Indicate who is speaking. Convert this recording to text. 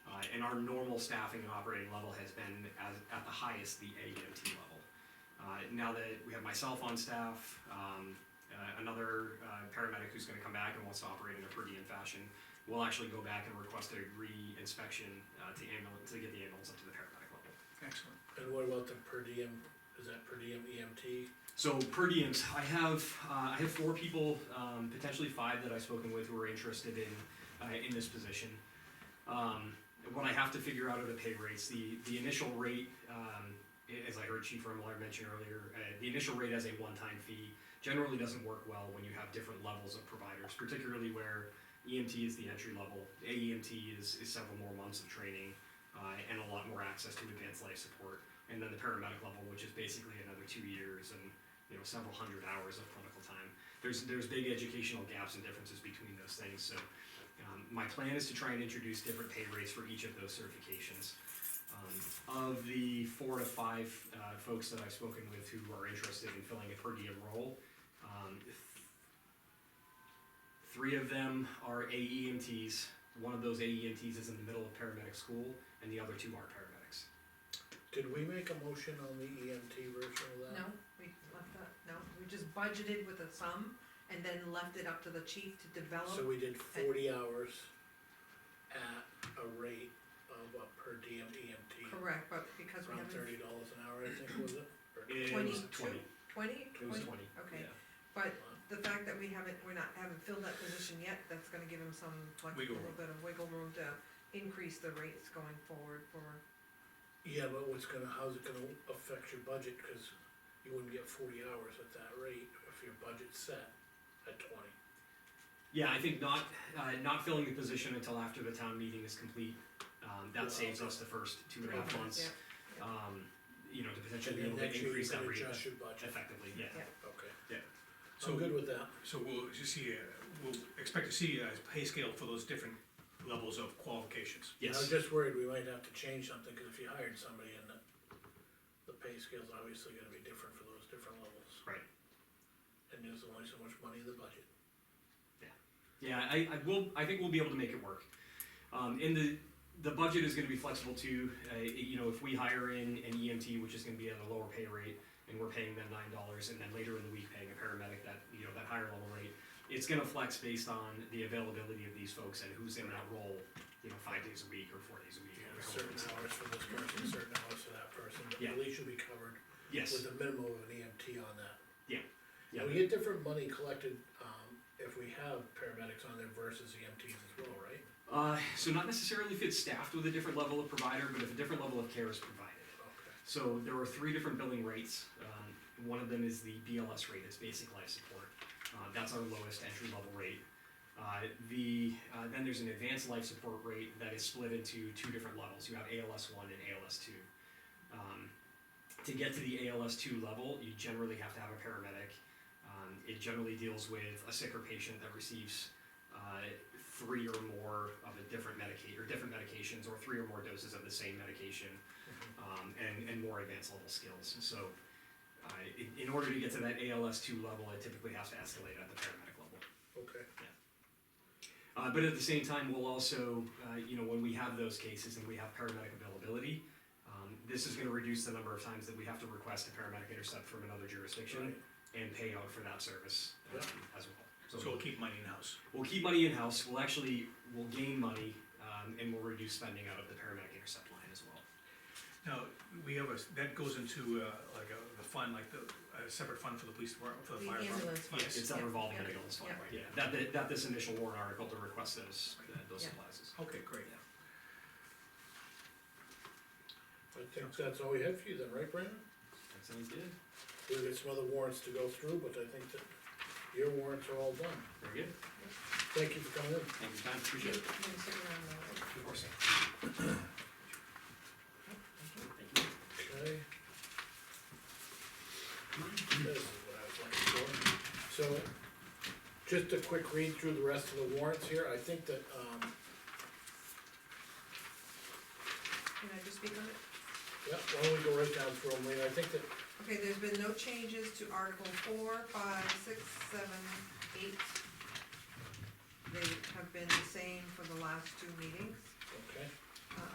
Speaker 1: Uh, and our normal staffing and operating level has been as, at the highest, the AEMT level. Uh, now that we have myself on staff, um, uh, another, uh, paramedic who's gonna come back and wants to operate in a per diem fashion, we'll actually go back and request a re-inspection, uh, to ambulance, to get the ambulance up to the paramedic level.
Speaker 2: Excellent.
Speaker 3: And what about the per diem, is that per diem E EMT?
Speaker 1: So per diems, I have, uh, I have four people, um, potentially five that I've spoken with who are interested in, uh, in this position. Um, what I have to figure out are the pay rates, the, the initial rate, um, a- as I heard Chief Remmeler mention earlier, uh, the initial rate as a one-time fee generally doesn't work well when you have different levels of providers, particularly where EMT is the entry level, AEMT is, is several more months of training, uh, and a lot more access to advanced life support. And then the paramedic level, which is basically another two years and you know several hundred hours of clinical time. There's there's big educational gaps and differences between those things. So um, my plan is to try and introduce different pay rates for each of those certifications. Um, of the four to five uh, folks that I've spoken with who are interested in filling a per diem role, um, th- three of them are AEMTs. One of those AEMTs is in the middle of paramedic school, and the other two are paramedics.
Speaker 3: Did we make a motion on the EMT version of that?
Speaker 4: No, we left that, no, we just budgeted with a sum and then left it up to the chief to
Speaker 3: So
Speaker 4: develop.
Speaker 3: we did forty hours at a rate of a per diem EMT,
Speaker 4: Correct, but because we
Speaker 3: around
Speaker 4: haven't,
Speaker 3: thirty dollars an hour, I think, was it? Or-
Speaker 1: It was
Speaker 4: 22?
Speaker 1: twenty.
Speaker 4: twenty,
Speaker 1: It was twenty.
Speaker 4: twenty, okay.
Speaker 1: yeah.
Speaker 4: but the fact that we haven't, we're not, haven't filled that position yet, that's gonna give him some, like, a
Speaker 1: Wiggle
Speaker 4: little bit of wiggle room to increase the rates going forward for,
Speaker 3: Yeah, but what's gonna, how's it gonna affect your budget, cause you wouldn't get forty hours at that rate if your budget's set at twenty.
Speaker 1: Yeah, I think not, uh, not filling the position until after the town meeting is complete, um,
Speaker 3: Well,
Speaker 1: that saves us the first two and a half
Speaker 4: Three
Speaker 1: months.
Speaker 4: months, yeah,
Speaker 1: Um, you know, to
Speaker 3: And
Speaker 1: potentially be
Speaker 3: then
Speaker 1: able to
Speaker 3: next year you
Speaker 1: increase
Speaker 3: can
Speaker 1: that rate
Speaker 3: adjust your budget,
Speaker 1: effectively, yeah.
Speaker 4: Yeah.
Speaker 3: okay.
Speaker 1: Yeah.
Speaker 3: So I'm good with that.
Speaker 2: So we'll just see, uh, we'll expect to see a pay scale for those different levels of qualifications.
Speaker 3: I was
Speaker 1: Yes,
Speaker 3: just worried we might have to change something, cause if you hired somebody and the, the pay scale's obviously gonna be different for those different levels.
Speaker 1: Right.
Speaker 3: And there's only so much money in the budget.
Speaker 1: yeah, I, I will, I think we'll be able to make it work. Um, and the, the budget is gonna be flexible too, uh, you know, if we hire in an EMT, which is gonna be at a lower pay rate, and we're paying them nine dollars, and then later in the week paying a paramedic that, you know, that higher level rate, it's gonna flex based on the availability of these folks and who's in that role, you know, five days a week or four days a week.
Speaker 3: You
Speaker 1: or
Speaker 3: know,
Speaker 1: however
Speaker 3: certain
Speaker 1: it's-
Speaker 3: hours for this person, certain hours for that person, but
Speaker 1: Yeah.
Speaker 3: at least you'll be covered
Speaker 1: Yes,
Speaker 3: with a minimum of an EMT on that.
Speaker 1: yeah,
Speaker 3: And we get different money collected, um, if we have paramedics on there versus EMTs as well, right?
Speaker 1: uh, so not necessarily if it's staffed with a different level of provider, but if a different level of care is provided.
Speaker 3: Okay.
Speaker 1: So there are three different billing rates. Um, one of them is the BLS rate, it's basic life support. Uh, that's our lowest entry level rate. Uh, the uh, then there's an advanced life support rate that is split into two different levels. You have ALS one and ALS two. Um, to get to the ALS two level, you generally have to have a paramedic. Um, it generally deals with a sicker patient that receives uh, three or more of a different medica- or different medications, or three or more doses of the same medication um, and, and more advanced level skills. So, uh, in, in order to get to that ALS two level, it typically has to escalate at the paramedic level.
Speaker 3: Okay,
Speaker 1: Uh, but at the same time, we'll also, uh, you know, when we have those cases and we have paramedic availability, um, this is going to reduce the number of times that we have to request a paramedic intercept from another jurisdiction and pay out for that service um, as
Speaker 2: So
Speaker 1: well.
Speaker 2: we'll keep money in-house.
Speaker 1: We'll keep money in-house, we'll actually, we'll gain money, um, and we'll reduce spending out of the paramedic intercept line as well.
Speaker 2: Now, we have a, that goes into, uh, like a, the fund, like the, a separate fund for the police department, for the
Speaker 4: The
Speaker 2: fire department.
Speaker 4: ambulance
Speaker 2: Yes.
Speaker 1: It's not
Speaker 4: Yeah,
Speaker 1: revolving
Speaker 4: yeah,
Speaker 1: ambulance fund,
Speaker 4: yeah.
Speaker 1: right, yeah, that, that, that this initial warrant article to request those, uh, those
Speaker 4: Yeah.
Speaker 1: supplies is.
Speaker 2: Okay, great.
Speaker 3: I think that's all we had for you then, right, Brandon?
Speaker 1: That sounds good.
Speaker 3: We've got some other warrants to go through, but I think that your warrants are all done.
Speaker 1: Very good,
Speaker 3: Thank you for coming in.
Speaker 1: thank you, Tom,
Speaker 4: you,
Speaker 1: appreciate
Speaker 4: you
Speaker 1: it.
Speaker 4: sit around there.
Speaker 1: Of course. Thank you.
Speaker 3: Okay. This is what I was looking for. So, just a quick read through the rest of the warrants here, I think that, um,
Speaker 4: Can I just speak on it?
Speaker 3: yeah, why don't we go right down through them, Lean, I think that,
Speaker 4: Okay, there's been no changes to Article four, five, six, seven, eight. They have been the same for the last two meetings.
Speaker 3: okay,